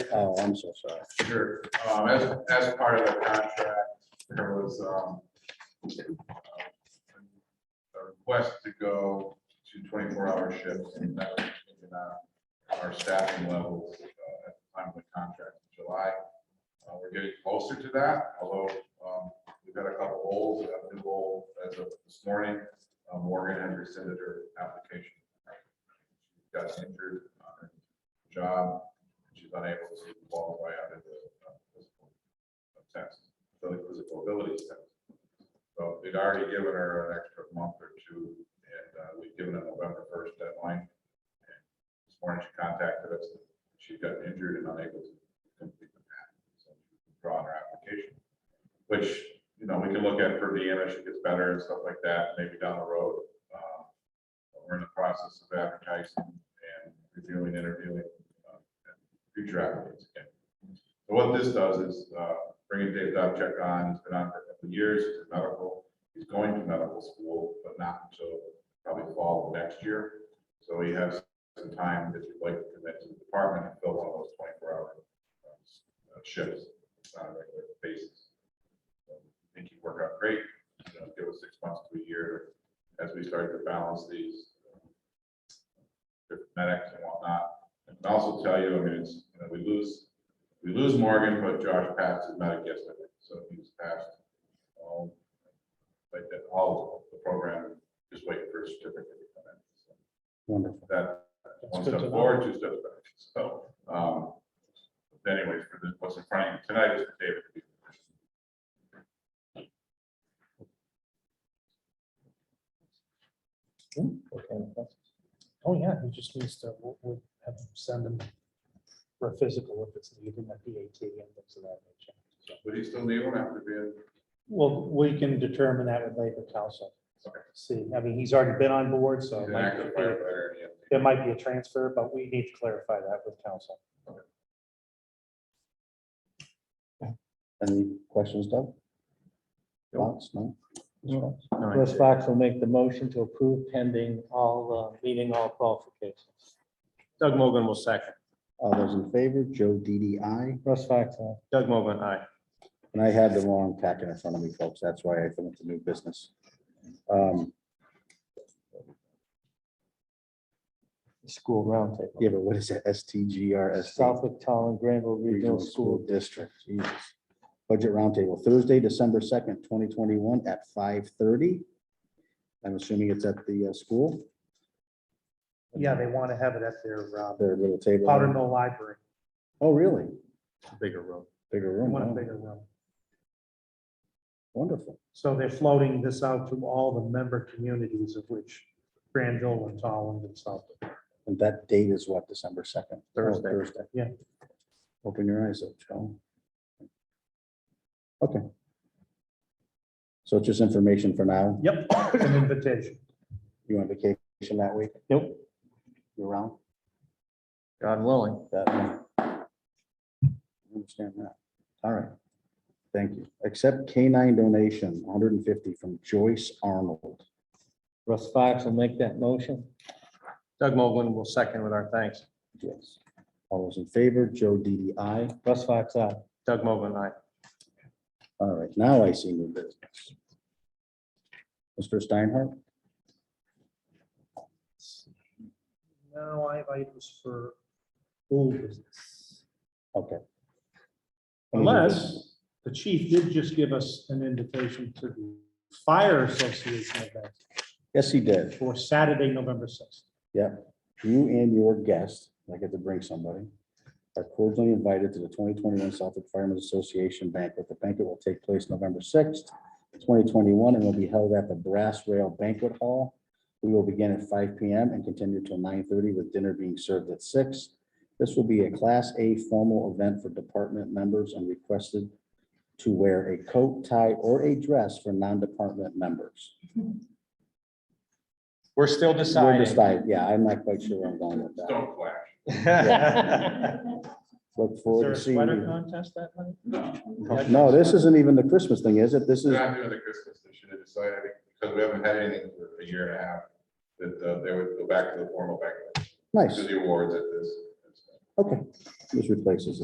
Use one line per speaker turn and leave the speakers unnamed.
Oh, I'm so sorry.
Sure, um, as, as part of the contract, there was, um, a request to go to twenty-four hour shifts, and that was in, uh, our staffing levels, uh, at the time of the contract in July. Uh, we're getting closer to that, although, um, we've got a couple holes, we have a new hole as of this morning. Uh, Morgan has rescinded her application. She Got injured on her job, she's unable to walk away out of the uh, physical uh, test, the physical abilities test. So they'd already given her an extra month or two, and uh, we'd given a November first deadline. And This morning she contacted us, she got injured and unable to complete the path, so she withdrew her application. Which, you know, we can look at for Deanna, she gets better and stuff like that, maybe down the road. Uh, but We're in the process of advertising and reviewing, interviewing, uh, and future applicants again. So what this does is uh, bringing Dave Dobchek on, he's been on for a couple of years, he's in medical, he's going to medical school, but not until probably fall of next year. So he has some time if you'd like to commit to the department and fill one of those twenty-four hour uh, shifts on a regular basis. So I think he'd work out great, you know, give us six months to a year as we start to balance these uh, different medics and whatnot. I can also tell you, I mean, it's, you know, we lose, we lose Morgan, but Josh passed his medic yesterday, so he's passed. um, Like that, all of the program, just waiting for a certificate to come in. So
Wonderful.
That, one
good
step
to know.
forward, two steps back, so, um, anyways, for the, what's in front of you tonight is the David.
Okay. Oh, yeah, he just needs to, we'll, we'll have him send him for a physical if it's needed, a PAT and things of that nature. So,
Would he still need one after being,
Well, we can determine that with labor council.
Okay.
See, I mean, he's already been on board, so it
he's an
might
active
be-
firefighter? and he has-
there might be a transfer, but we need to clarify that with council.
Any questions, Doug? Thoughts? No?
No. Russ Fox will make the motion to approve pending all, uh, meeting all qualifications.
Doug Mogul will second.
All those in favor, Joe DDI.
Russ Fox, uh, aye.
Doug Mogul, aye.
And I had the wrong packet in front of me, folks. That's why I think it's a new business. Um,
school roundtable.
Yeah, but what is it? STGRS?
Southwick Town and Granville Regional School.
District. Jesus. Budget Roundtable, Thursday, December second, twenty twenty-one at five thirty. I'm assuming it's at the uh, school,
Yeah, they want to have it at their uh,
their little table.
Powder Mill Library.
Oh, really?
Bigger room. Mm-hmm.
Bigger
They
room.
want a
wow.
bigger room.
Wonderful.
So they're floating this out to all the member communities of which Granville and Tolland and South.
And that date is what, December second? Oh,
Thursday.
Thursday.
Yeah.
Open your eyes up, Joe. Okay. So it's just information for now.
Yep, it's an invitation.
You on vacation that week?
Nope.
You around?
God willing.
That- I Understand that. All right. Thank you. Accept canine donation, hundred and fifty from Joyce Arnold.
Russ Fox will make that motion.
Doug Mogul will second with our thanks.
Yes. All those in favor, Joe DDI.
Russ Fox, aye.
Doug Mogul, aye.
All right, now I see new business. Mr. Steinhardt?
Now I have items for old business.
Okay.
Unless the chief did just give us an invitation to the fire association event
Yes, he did.
for Saturday, November sixth.
You and your guest, and I get to bring somebody, are cordially invited to the twenty twenty-one Suffolk Firemen's Association banquet. The banquet will take place November sixth, twenty twenty-one, and will be held at the Brass Rail Banquet Hall. We will begin at five P M and continue till nine thirty with dinner being served at six. This will be a Class A formal event for department members and requested to wear a coat, tie, or a dress for non-department members.
We're still
We'll
deciding.
decide, yeah, I'm not quite sure where I'm going with that.
Don't flash.
Look
Is
forward
there
to
a
seeing
sweater
you.
contest that night?
No, this isn't even the Christmas thing, is it? This
They're
is,
Not doing the Christmas, they should have decided, because we haven't had anything for a year and a half, that uh, they would go back to the formal banquet,
nice,
to the awards at this.
okay. This replaces it.